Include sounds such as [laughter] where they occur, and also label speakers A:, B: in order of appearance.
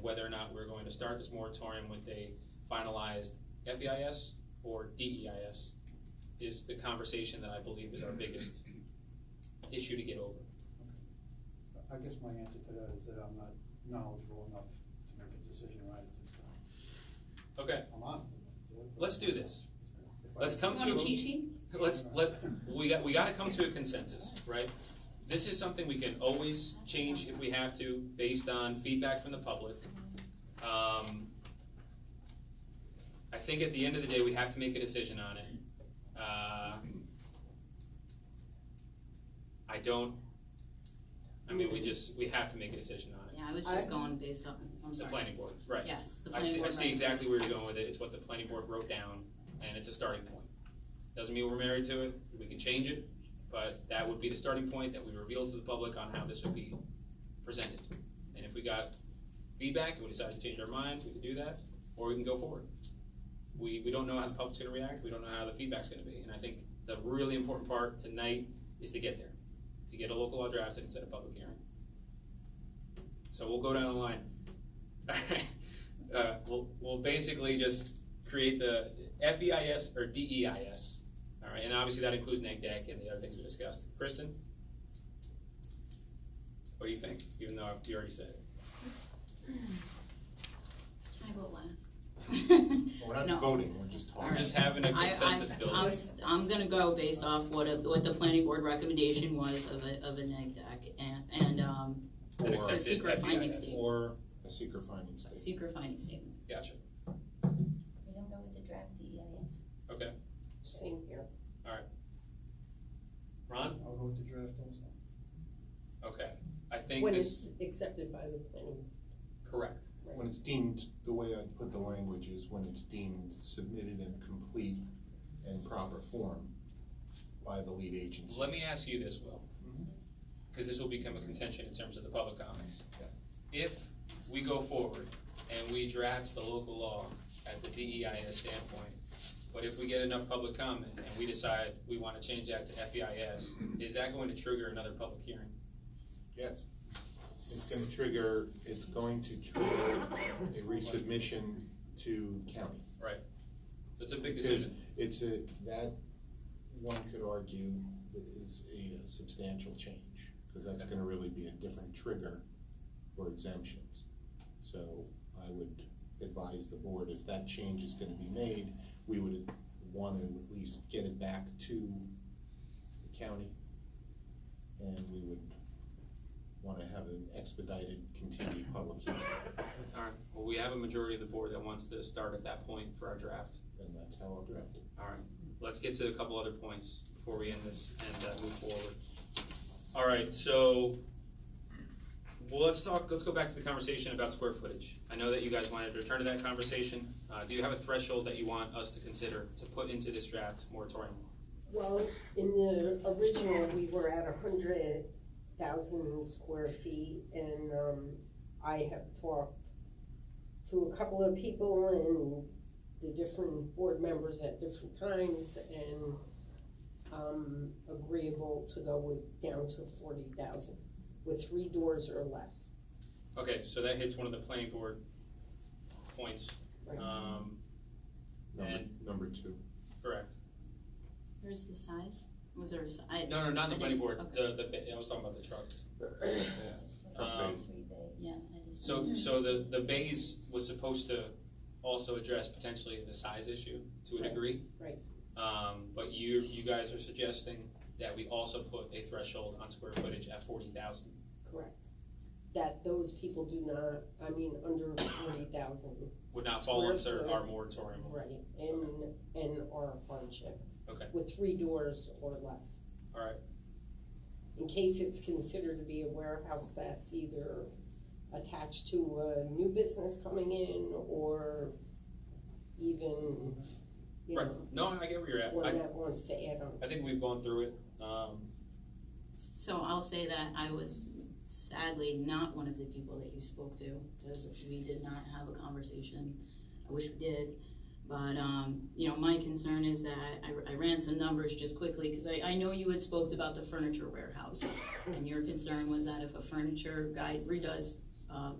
A: whether or not we're going to start this moratorium with a finalized FEIS or DEIS is the conversation that I believe is our biggest issue to get over.
B: I guess my answer to that is that I'm not knowledgeable enough to make a decision right at this time.
A: Okay,
B: I'm honest. about it.
A: Let's do this.
B: If I-
A: Let's come
C: You want a cheat
A: to,
C: sheet?
A: let's, let, we got, we gotta come to a consensus, right? This is something we can always change if we have to, based on feedback from the public. Um, I think at the end of the day, we have to make a decision on it. Uh, I don't, I mean, we just, we have to make a decision on it.
C: Yeah, I was just going based on, I'm
A: The
C: sorry.
A: planning board, right.
C: Yes, the
A: I
C: planning
A: see, I
C: board.
A: see exactly where you're going with it, it's what the planning board wrote down, and it's a starting point. Doesn't mean we're married to it, we can change it, but that would be the starting point that we reveal to the public on how this would be presented. And if we got feedback and we decide to change our minds, we can do that, or we can go forward. We, we don't know how the public's gonna react, we don't know how the feedback's gonna be, and I think the really important part tonight is to get there, to get a local law drafted instead of public hearing. So we'll go down the line. [laughs] Uh, we'll, we'll basically just create the FEIS or DEIS. All right, and obviously that includes NAGDAC and the other things we discussed. Kristen? What do you think, even though you already said it?
C: I go last.
D: We're not
C: No.
D: voting, we're just
C: All
D: talking.
C: right.
A: Just having a
C: I, I,
A: consensus building.
C: I'm, s- I'm gonna go based off what, a- what the planning board recommendation was of a, of a neg deck and, and, um,
A: An
D: Or-
A: accepted
C: secret finding
A: FEIS.
C: statement.
D: Or a secret finding statement.
C: secret finding statement.
A: Gotcha,
E: We don't go with the draft DEIS.
A: okay.
E: Same here.
A: Ron?
B: [laughs] I'll go with the draft also.
A: Okay, I think
F: When
A: this,
F: it's accepted by the planning.
A: correct.
D: When it's deemed, the way I put the language is when it's deemed submitted in complete and proper form by the lead agency.
A: Let me ask you this, Will,
D: Mhm.
A: because this will become a contention in terms of the public comments. If we go forward and we draft the local law at the DEIS standpoint, but if we get enough public comment and we decide we want to change that to FEIS, is that going to trigger another public hearing?
D: Yes, it's gonna trigger, it's going to trigger a resubmission to the county.
A: So it's a big
D: Because
A: decision.
D: it's a, that, one could argue, is a substantial change, because that's gonna really be a different trigger for exemptions. So I would advise the board, if that change is gonna be made, we would want to at least get it back to the county. And we would wanna have an expedited continued public hearing,
A: All right, well, we have a majority of the board that wants to start at that point for our draft.
D: and that's how I'll draft it.
A: All right, let's get to a couple other points before we end this and uh, move forward. All right, so, well, let's talk, let's go back to the conversation about square footage. I know that you guys wanted to return to that conversation. Uh, do you have a threshold that you want us to consider to put into this draft moratorium?
F: Well, in the original, we were at a hundred thousand square feet and, um, I have talked to a couple of people and the different board members at different times and, um, agreeable to go with, down to forty thousand with three doors or less.
A: Okay, so that hits one of the planning board points, um,
D: Number,
A: And-
D: number two.
A: correct?
C: Where's the size? Was there a si- I-
A: No, no, not the
C: I
A: planning
C: didn't-
A: board,
C: okay.
A: the, the, ba- I was talking about the truck.
E: Just so
A: Um,
E: it's three days.
C: Yeah. I just-
A: So, so the, the bays was supposed to also address potentially the size issue to a
F: Right,
A: degree.
F: right.
A: Um, but you, you guys are suggesting that we also put a threshold on square footage at forty thousand.
F: Correct. That those people do not, I mean, under forty thousand,
A: Would not fall
F: Square
A: under
F: foot.
A: our moratorium.
F: right, and, and are a hardship.
A: Okay.
F: With three doors or less.
A: Alright.
F: In case it's considered to be a warehouse that's either attached to a new business coming in or even, you
A: Right,
F: know,
A: no, I get where you're at.
F: one
A: I,
F: that wants to add on.
A: I think we've gone through it. Um,
C: So I'll say that I was sadly not one of the people that you spoke to, because we did not have a conversation. I wish we did, but, um, you know, my concern is that, I, I ran some numbers just quickly, because I, I know you had spoke about the furniture warehouse. And your concern was that if a furniture guy redoes, um,